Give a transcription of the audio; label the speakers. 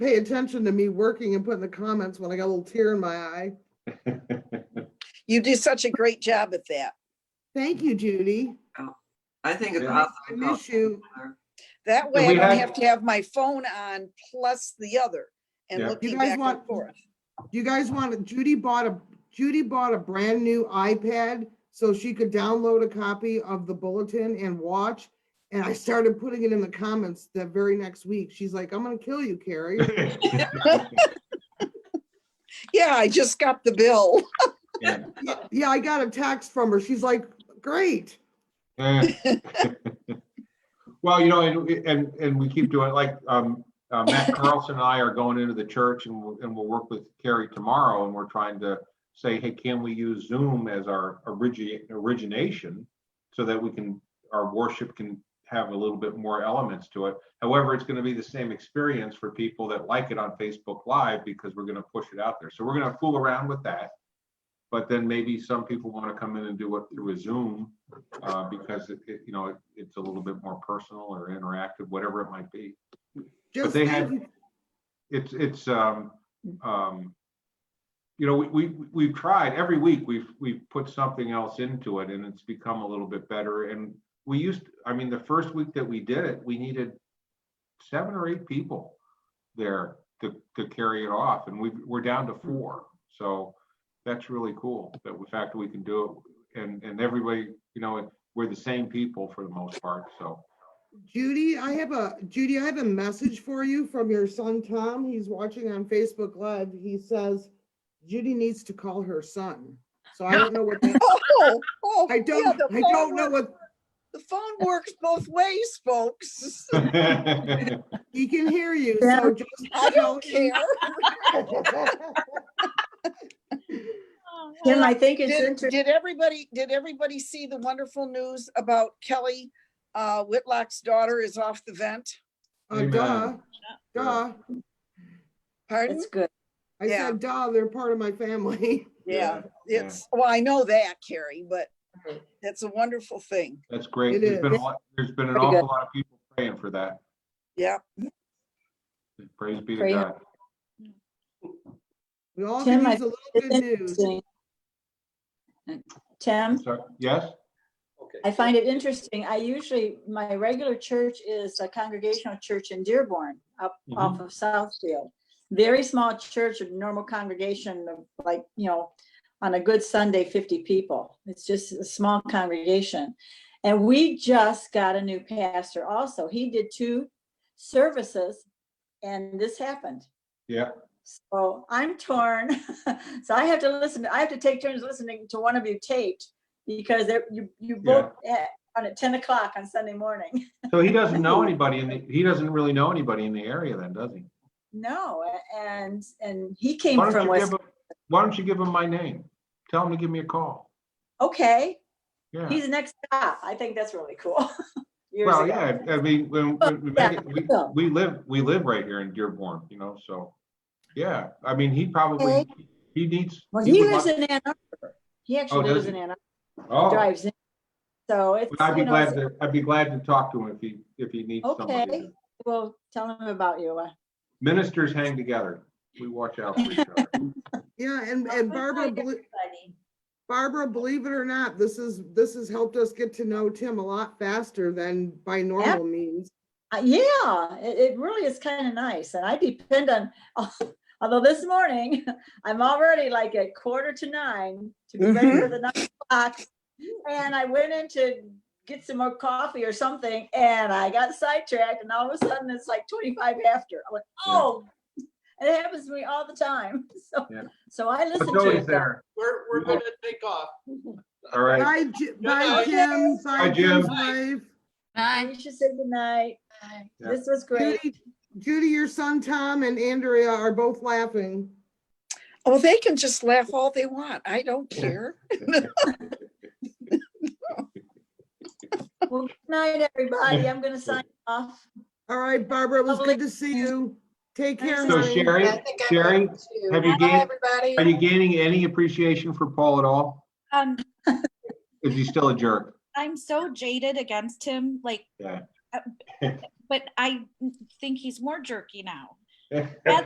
Speaker 1: pay attention to me working and putting the comments when I got a little tear in my eye.
Speaker 2: You do such a great job at that.
Speaker 1: Thank you, Judy.
Speaker 3: I think it's
Speaker 4: Yeah.
Speaker 3: awesome.
Speaker 1: I miss you.
Speaker 2: That way I
Speaker 4: we
Speaker 2: don't
Speaker 4: had-
Speaker 2: have to have my phone on plus the other and
Speaker 4: Yeah. You
Speaker 2: looking
Speaker 1: guys
Speaker 2: back and
Speaker 1: want-
Speaker 2: forth.
Speaker 1: You guys want, Judy bought a, Judy bought a brand new iPad so she could download a copy of the bulletin and watch. And I started putting it in the comments that very next week. She's like, I'm gonna kill you, Carrie.
Speaker 2: Yeah, I just got the bill.
Speaker 1: Yeah, Yeah, I got a text from her. She's like, great.
Speaker 4: Eh. Well, you know, and, and, and we keep doing, like, um, uh, Matt Carlson and I are going into the church and we'll, and we'll work with Carrie tomorrow and we're trying to say, hey, can we use Zoom as our origi- origination? So that we can, our worship can have a little bit more elements to it. However, it's gonna be the same experience for people that like it on Facebook Live because we're gonna push it out there. So we're gonna fool around with that. But then maybe some people want to come in and do it through a Zoom uh, because it, it- you know, it- it's a little bit more personal or interactive, whatever it might be.
Speaker 1: Just
Speaker 4: they
Speaker 1: thank
Speaker 4: had-
Speaker 1: you.
Speaker 4: It's, it's, um, um, you know, we, we, we've tried, every week, we've, we've put something else into it and it's become a little bit better. And we used, I mean, the first week that we did it, we needed seven or eight people there to, to carry it off and we, we're down to four. So that's really cool that the fact that we can do it and, and everybody, you know, we're the same people for the most part, so.
Speaker 1: Judy, I have a, Judy, I have a message for you from your son, Tom. He's watching on Facebook Live. He says Judy needs to call her son. So I don't know what, that-
Speaker 2: Oh, oh,
Speaker 1: I
Speaker 2: yeah,
Speaker 1: don't,
Speaker 2: the
Speaker 1: I
Speaker 2: phone
Speaker 1: don't know
Speaker 2: works-
Speaker 1: what,
Speaker 2: The phone works both ways, folks.
Speaker 1: he can hear you.
Speaker 5: Yeah.
Speaker 1: So just
Speaker 2: I don't
Speaker 1: tell him- Uh,
Speaker 2: care.
Speaker 5: Tim, I think it's
Speaker 2: Did,
Speaker 5: interesting.
Speaker 2: did everybody, did everybody see the wonderful news about Kelly? Uh, Whitlock's daughter is off the vent.
Speaker 1: Uh,
Speaker 4: Amen.
Speaker 1: duh, duh.
Speaker 2: Pardon?
Speaker 5: It's good.
Speaker 1: I
Speaker 2: Yeah.
Speaker 1: said, duh, they're part of my family.
Speaker 2: Yeah,
Speaker 4: yeah.
Speaker 2: it's, well, I know that, Carrie, but
Speaker 1: Right.
Speaker 2: that's a wonderful thing.
Speaker 4: That's great.
Speaker 1: It
Speaker 4: There's been a
Speaker 1: is.
Speaker 4: lot, there's been an
Speaker 5: Pretty good.
Speaker 4: awful lot of people praying for that.
Speaker 2: Yeah.
Speaker 4: Praise be to
Speaker 5: Prayer.
Speaker 4: God.
Speaker 1: We all
Speaker 5: Tim,
Speaker 1: can
Speaker 5: I
Speaker 1: use a little
Speaker 5: It's
Speaker 1: good news.
Speaker 5: interesting. Tim,
Speaker 4: So, yes?
Speaker 5: I find it interesting. I usually, my regular church is a congregational church in Dearborn, up
Speaker 4: Mhm.
Speaker 5: off of Southfield. Very small church, a normal congregation of like, you know, on a good Sunday, 50 people. It's just a small congregation. And we just got a new pastor also. He did two services and this happened.
Speaker 4: Yeah.
Speaker 5: So I'm torn. So I have to listen, I have to take turns listening to one of you taped because they're- you, you
Speaker 4: Yeah.
Speaker 5: both at, on at ten o'clock on Sunday morning.
Speaker 4: So he doesn't know anybody in the, he doesn't really know anybody in the area then, does he?
Speaker 5: No, a- and, and he came
Speaker 4: Why don't
Speaker 5: from
Speaker 4: you
Speaker 5: West,
Speaker 4: give him, why don't you give him my name? Tell him to give me a call.
Speaker 5: okay,
Speaker 4: Yeah.
Speaker 5: he's the next stop. I think that's really cool. Years
Speaker 4: Well,
Speaker 5: ago. Oh,
Speaker 4: yeah, I mean, when, when we make it- we,
Speaker 5: yeah.
Speaker 4: we live, we live right here in Dearborn, you know, so. Yeah, I mean, he probably,
Speaker 5: Okay.
Speaker 4: he needs.
Speaker 5: Well,
Speaker 4: would
Speaker 5: he lives
Speaker 4: like-
Speaker 5: in Ann Arbor. He
Speaker 4: Oh,
Speaker 5: actually
Speaker 4: does
Speaker 5: lives
Speaker 4: he?
Speaker 5: in Ann Arbor,
Speaker 4: Oh,
Speaker 5: drives in. So it's,
Speaker 4: I'd be
Speaker 5: you know,
Speaker 4: glad
Speaker 5: it's-
Speaker 4: to, I'd be glad to talk to him if he, if he needs somebody.
Speaker 5: okay, well, tell him about you. uh,
Speaker 4: Ministers hang together. We watch out for each other.
Speaker 1: Yeah, and, and Barbara, Blue- Barbara, believe it or not, this is, this has helped us get to know Tim a lot faster than by normal means.
Speaker 5: Uh, yeah, it, it really is kind of nice. And I depend on, although this morning, I'm already like at quarter to nine to be ready
Speaker 4: Mm-hmm.
Speaker 5: for the nine o'clock. And I went in to get some more coffee or something and I got sidetracked and all of a sudden it's like twenty-five after. I went,
Speaker 4: Yeah.
Speaker 5: oh, and it happens to me all the time. So,
Speaker 4: Yeah.
Speaker 5: so I listen
Speaker 4: It's
Speaker 5: to
Speaker 4: always
Speaker 5: it. though.
Speaker 4: there.
Speaker 6: We're, we're
Speaker 4: Yeah.
Speaker 6: gonna take off.
Speaker 4: All right.
Speaker 1: Bye, Ji-
Speaker 6: No,
Speaker 1: bye
Speaker 6: no,
Speaker 1: Jim, bye
Speaker 4: Jim.
Speaker 1: Jim's wife.
Speaker 5: You should say goodnight.
Speaker 4: Yeah.
Speaker 5: This was great.
Speaker 1: Judy, Judy, your son Tom and Andrea are both laughing.
Speaker 2: Oh, they can just laugh all they want. I don't care.
Speaker 5: Well, good night, everybody. I'm gonna sign off.
Speaker 1: All right, Barbara, it was
Speaker 5: Lovely.
Speaker 1: good to see you. Take care.
Speaker 4: So
Speaker 1: honey.
Speaker 4: Sherry, Sherry, have you gained, are you gaining any appreciation for Paul at all?
Speaker 7: Um,
Speaker 4: Is he still a jerk?
Speaker 7: I'm so jaded against him, like,
Speaker 4: Yeah.
Speaker 7: uh, but I think he's more jerky now.